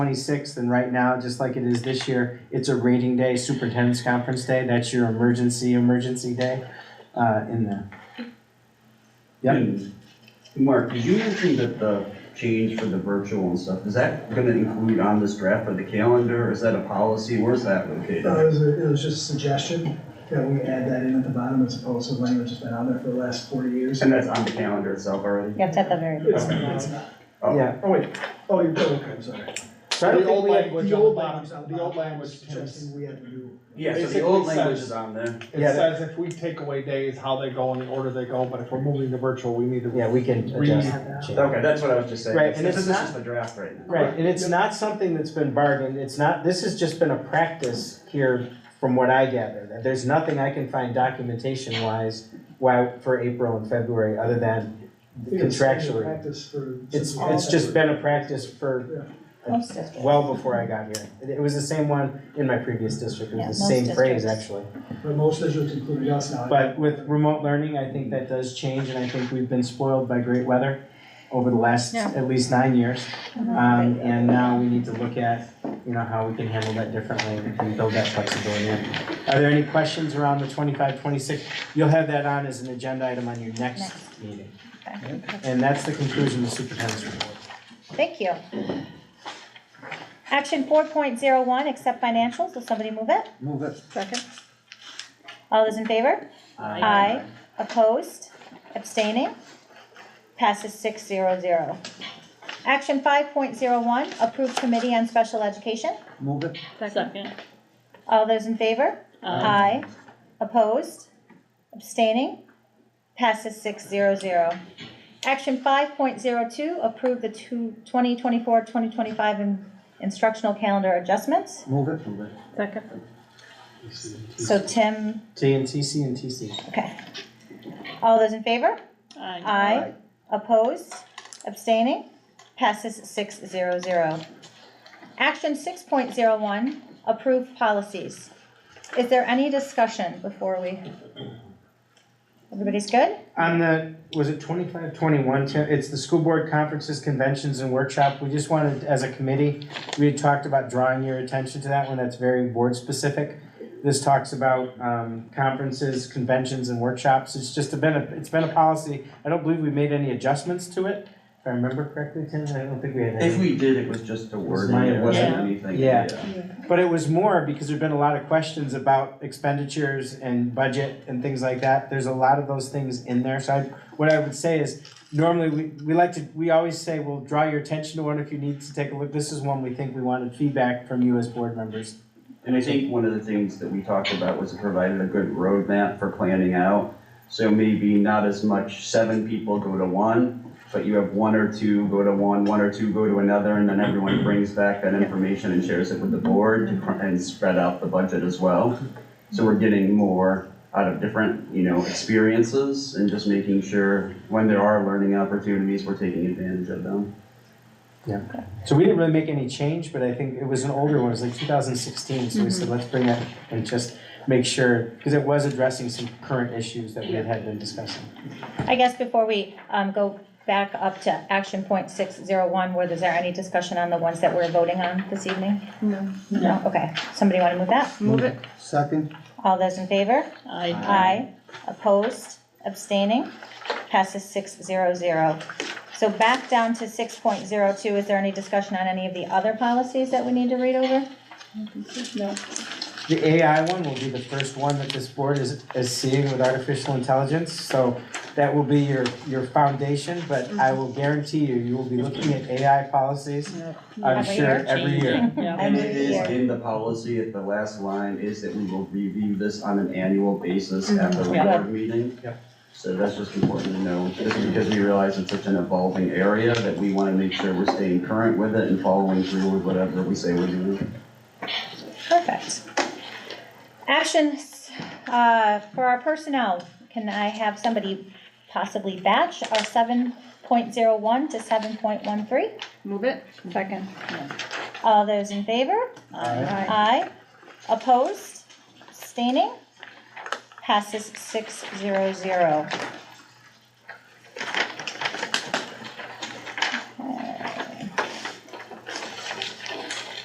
26th, and right now, just like it is this year, it's a rating day, superintendent's conference day. That's your emergency, emergency day uh, in there. Yep. And Mark, did you mention that the change for the virtual and stuff, is that gonna include on this draft of the calendar, or is that a policy, where's that Uh, No, located? it was, a- it was just a suggestion that we add that in at the bottom as opposed to language that's been on there for the last forty years. And that's on the calendar itself already? Yeah, it's at the very, It's not, it's not. Oh. Yeah. Oh, wait, oh, you're, oh, okay, I'm sorry. So I don't The think old we- language The on the old bottom, language on the old bottom, language, Tim, suggesting we had to do. Yeah, so the old Basically language says- is on there. Yeah, It says if we take away days, how they go and the order they go, but if we're moving to virtual, we need to. Yeah, we can adjust. change. Okay, that's what I was just saying. Right, This and it's is not- just the draft right now. Right, and it's not something that's been bargained, it's not, this has just been a practice here from what I gather. that There's nothing I can find documentation wise, why, for April and February, other than It's standard contractually. Practice for. It's, some- it's just been a practice for most districts. well before I got here. It- It was the same one in my previous district, it Yeah, was the most same phrase districts. actually. But most districts, including us now. But with remote learning, I think that does change, and I think we've been spoiled by great weather over the last Yeah. at least nine years. Um, Mhm. and now we need to look at, you know, how we can handle that differently and build that flexibility in. Are there any questions around the 25, 26? twenty-six? You'll have that on as an agenda item on your next meeting. And that's the conclusion of the superintendent's report. Thank you. Action four point zero one, accept financials, will somebody move it? Move it. Second. All those in favor? Aye. Opposed? Abstaining? Passes six zero zero. Action five point zero one, approve committee on special education, Move it. Second. all those in favor? Aye. Opposed? Abstaining? Passes six zero zero. Action five point zero two, approve the two, twenty twenty-four, twenty twenty-five instructional calendar adjustments. Move it. Move it. Second. So Tim, T and TC and TC. okay. All those in favor? Aye. Aye. Opposed? Abstaining? Passes six zero zero. Action six point zero one, approve policies. Is there any discussion before we? Everybody's good? On the, was it twenty-five, twenty-one, Tim? It's the school board conferences, conventions, and workshop. We just wanted, as a committee, we had talked about drawing your attention to that one. That's very board-specific. This talks about, um, conferences, conventions, and workshops. It's just been a, it's been a policy. I don't believe we made any adjustments to it, if I remember correctly, Tim. I don't think we had If any. we did, it was just a word, minor. it wasn't Yeah. anything. Yeah. But it was more because there've been a lot of questions about expenditures and budget and things like that. There's a lot of those things in there. So I, what I would say is normally we, we like to, we always say, we'll draw your attention to one if you need to take a look. This is one we think we wanted feedback from you as board members. And I think one of the things that we talked about was it provided a good roadmap for planning out. So maybe not as much seven people go to one, but you have one or two go to one, one or two go to another, and then everyone brings back that information and shares it with the board to cr- and spread out the budget as well. So we're getting more out of different, you know, experiences and just making sure when there are learning opportunities, we're taking advantage of them. So we didn't really make any change, but I think it was an older one, it was like two thousand sixteen, so we said, let's bring that and just make sure, because it was addressing some current issues that we had had been discussing. I guess before we um, go back up to action point six zero one, was there any discussion on the ones that we're voting on this evening? No. No, okay. Somebody want to move that? Move it. Second. All those in favor? Aye. Aye. Opposed? Abstaining? Passes six zero zero. So back down to six point zero two, is there any discussion on any of the other policies that we need to read over? No. The AI one will be the first one that this board is, is seeing with artificial intelligence, so that will be your, your foundation, but I will guarantee you, you will be looking at AI policies, I'm sure, Every year. every year. Yeah. And it is Every in the policy, at the last line is that we will review this on an annual basis at the Yeah. regular meeting. Yep. So that's just important to know, just because we realize it's such an evolving area that we wanna make sure we're staying current with it and following through with whatever we say we're doing. Perfect. Actions, uh, for our personnel, can I have somebody possibly batch our seven point zero one to seven point one three? Move it. Second. All those in favor? Aye. Opposed? Abstaining? Passes six zero zero.